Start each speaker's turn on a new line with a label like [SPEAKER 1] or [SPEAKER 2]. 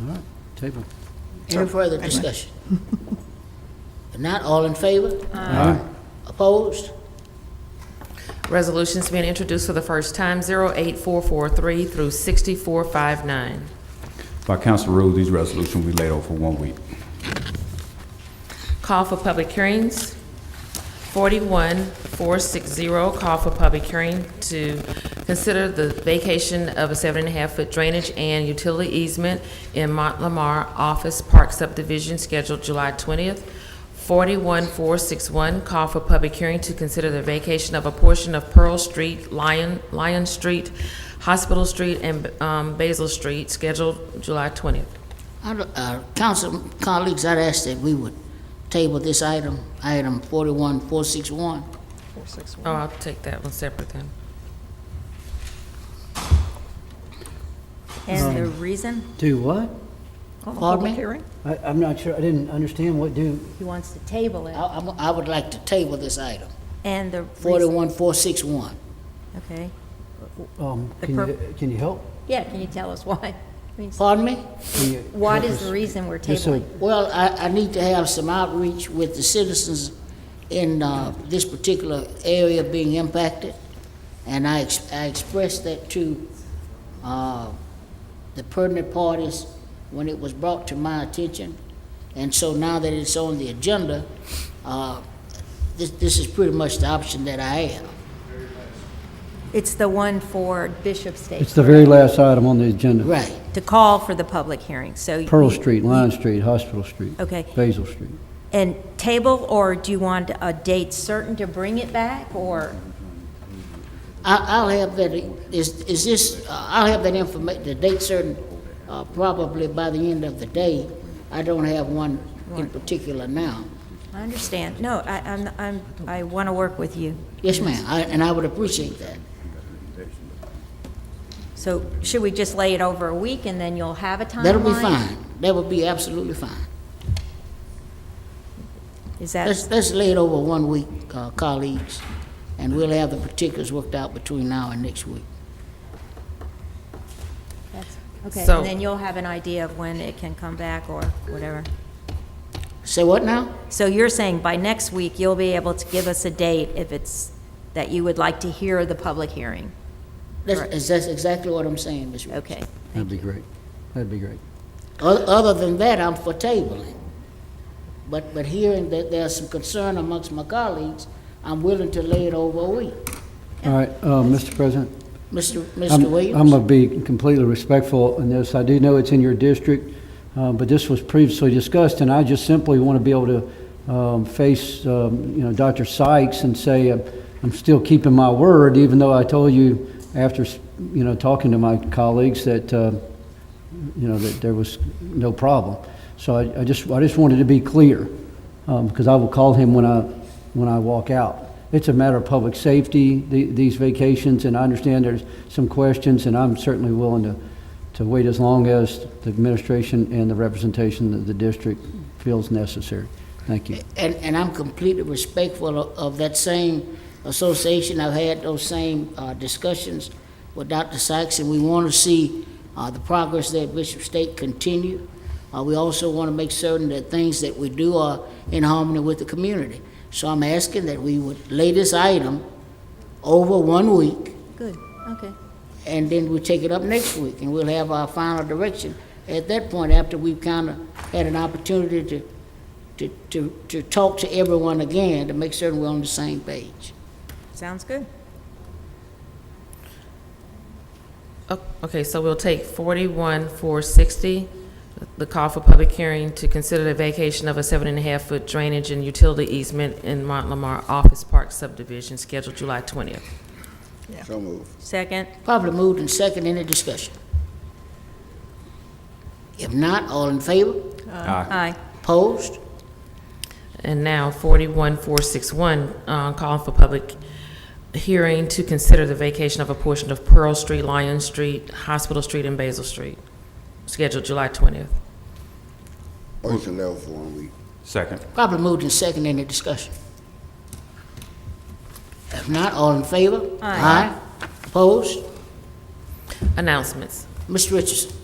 [SPEAKER 1] All right, table.
[SPEAKER 2] Any further discussion? If not, all in favor?
[SPEAKER 1] Aye.
[SPEAKER 2] Opposed?
[SPEAKER 3] Resolutions being introduced for the first time, 08443 through 6459.
[SPEAKER 4] By council rules, these resolutions will be laid over for one week.
[SPEAKER 3] Call for public hearings. 41460, call for public hearing to consider the vacation of a seven and a half foot drainage and utility easement in Mont Lamar Office Park subdivision scheduled July 20th. 41461, call for public hearing to consider the vacation of a portion of Pearl Street, Lion, Lion Street, Hospital Street, and um, Basil Street scheduled July 20th.
[SPEAKER 2] I'd- uh, Council colleagues, I'd ask that we would table this item, item 41461.
[SPEAKER 3] Oh, I'll take that one separate then.
[SPEAKER 5] And
[SPEAKER 1] Um,
[SPEAKER 5] the reason?
[SPEAKER 1] Do what?
[SPEAKER 5] on the
[SPEAKER 2] Pardon me?
[SPEAKER 5] public hearing?
[SPEAKER 1] I, I'm not sure, I didn't understand what do,
[SPEAKER 5] He wants to table
[SPEAKER 2] I-
[SPEAKER 1] Uh,
[SPEAKER 5] it,
[SPEAKER 2] I'm- I would like to table this item,
[SPEAKER 5] and the reason,
[SPEAKER 2] 41461.
[SPEAKER 5] okay.
[SPEAKER 1] um,
[SPEAKER 5] The
[SPEAKER 1] can you,
[SPEAKER 5] pur-
[SPEAKER 1] can you help?
[SPEAKER 5] Yeah, can you tell us why? I mean,
[SPEAKER 2] Pardon me?
[SPEAKER 1] Can you
[SPEAKER 5] What
[SPEAKER 1] help
[SPEAKER 5] is the
[SPEAKER 1] us?
[SPEAKER 5] reason we're
[SPEAKER 1] Just so-
[SPEAKER 5] tabling?
[SPEAKER 2] Well, I, I need to have some outreach with the citizens in uh, this particular area being impacted, and I, ex- I expressed that to uh, the pertinent parties when it was brought to my attention, and so now that it's on the agenda, uh, this, this is pretty much the option that I have.
[SPEAKER 5] It's the one for Bishop State,
[SPEAKER 1] It's the very last item on the agenda.
[SPEAKER 2] Right.
[SPEAKER 5] to call for the public hearing, so.
[SPEAKER 1] Pearl
[SPEAKER 5] you-
[SPEAKER 1] Street, Lion Street, Hospital Street.
[SPEAKER 5] Okay.
[SPEAKER 1] Basil Street.
[SPEAKER 5] And table, or do you want a date certain to bring it back, or?
[SPEAKER 2] I, I'll have that, is, is this, uh, I'll have that information, the date certain, uh, probably by the end of the day. I don't have one in particular now.
[SPEAKER 5] I understand, no, I, I'm, I'm, I want to work with you.
[SPEAKER 2] Yes, ma'am, I, and I would appreciate that.
[SPEAKER 5] So should we just lay it over a week, and then you'll have a timeline?
[SPEAKER 2] That'll be fine. That would be absolutely fine.
[SPEAKER 5] Is that,
[SPEAKER 2] Let's, let's lay it over one week, uh, colleagues, and we'll have the particulars worked out between now and next week.
[SPEAKER 5] that's- okay,
[SPEAKER 3] So-
[SPEAKER 5] and then you'll have an idea of when it can come back, or whatever?
[SPEAKER 2] Say what now?
[SPEAKER 5] So you're saying by next week, you'll be able to give us a date if it's, that you would like to hear the public hearing?
[SPEAKER 2] That's, is- that's exactly what I'm saying, Ms. Rich.
[SPEAKER 5] Okay.
[SPEAKER 1] That'd be great. That'd be great.
[SPEAKER 2] O- Other than that, I'm for tabling. But, but hearing that there's some concern amongst my colleagues, I'm willing to lay it over a week.
[SPEAKER 1] All right, uh, Mr. President.
[SPEAKER 2] Mr.
[SPEAKER 1] I'm-
[SPEAKER 2] Mr.
[SPEAKER 1] I'm going
[SPEAKER 2] Williams?
[SPEAKER 1] to be completely respectful in this. I do know it's in your district, uh, but this was previously discussed, and I just simply want to be able to um, face, um, you know, Dr. Sykes and say, uh, I'm still keeping my word, even though I told you after, s- you know, talking to my colleagues that, uh, you know, that there was no problem. So I I just, I just wanted to be clear, um, because I will call him when I, when I walk out. It's a matter of public safety, the- these vacations, and I understand there's some questions, and I'm certainly willing to, to wait as long as the administration and the representation of the district feels necessary. Thank you.
[SPEAKER 2] And, and I'm completely respectful of- of that same association. I've had those same uh, discussions with Dr. Sykes, and we want to see uh, the progress there at Bishop State continue. Uh, We also want to make certain that things that we do are in harmony with the community. So I'm asking that we would lay this item over one week,
[SPEAKER 5] Good, okay.
[SPEAKER 2] and then we'll take it up next week, and we'll have our final direction at that point, after we've kind of had an opportunity to, to, to, to talk to everyone again, to make certain we're on the same page.
[SPEAKER 5] Sounds good.
[SPEAKER 3] O- Oh, Okay, so we'll take forty-one, four sixty, the call for public hearing to consider the vacation of a seven and a half foot drainage and utility easement in Mont Lamar Office Park subdivision scheduled July twentieth.
[SPEAKER 5] Second,
[SPEAKER 2] Probably moved and second, any discussion? If not, all in favor?
[SPEAKER 4] Aye.
[SPEAKER 5] aye.
[SPEAKER 2] Opposed?
[SPEAKER 3] And now forty-one, four six one, uh, call for public hearing to consider the vacation of a portion of Pearl Street, Lion Street, Hospital Street, and Basil Street, scheduled July twentieth.
[SPEAKER 6] Motion level for one week.
[SPEAKER 4] Second.
[SPEAKER 2] Probably moved and second, any discussion? If not, all in favor?
[SPEAKER 5] Aye.
[SPEAKER 2] Opposed?
[SPEAKER 3] Announcements.
[SPEAKER 2] Mr. Richardson?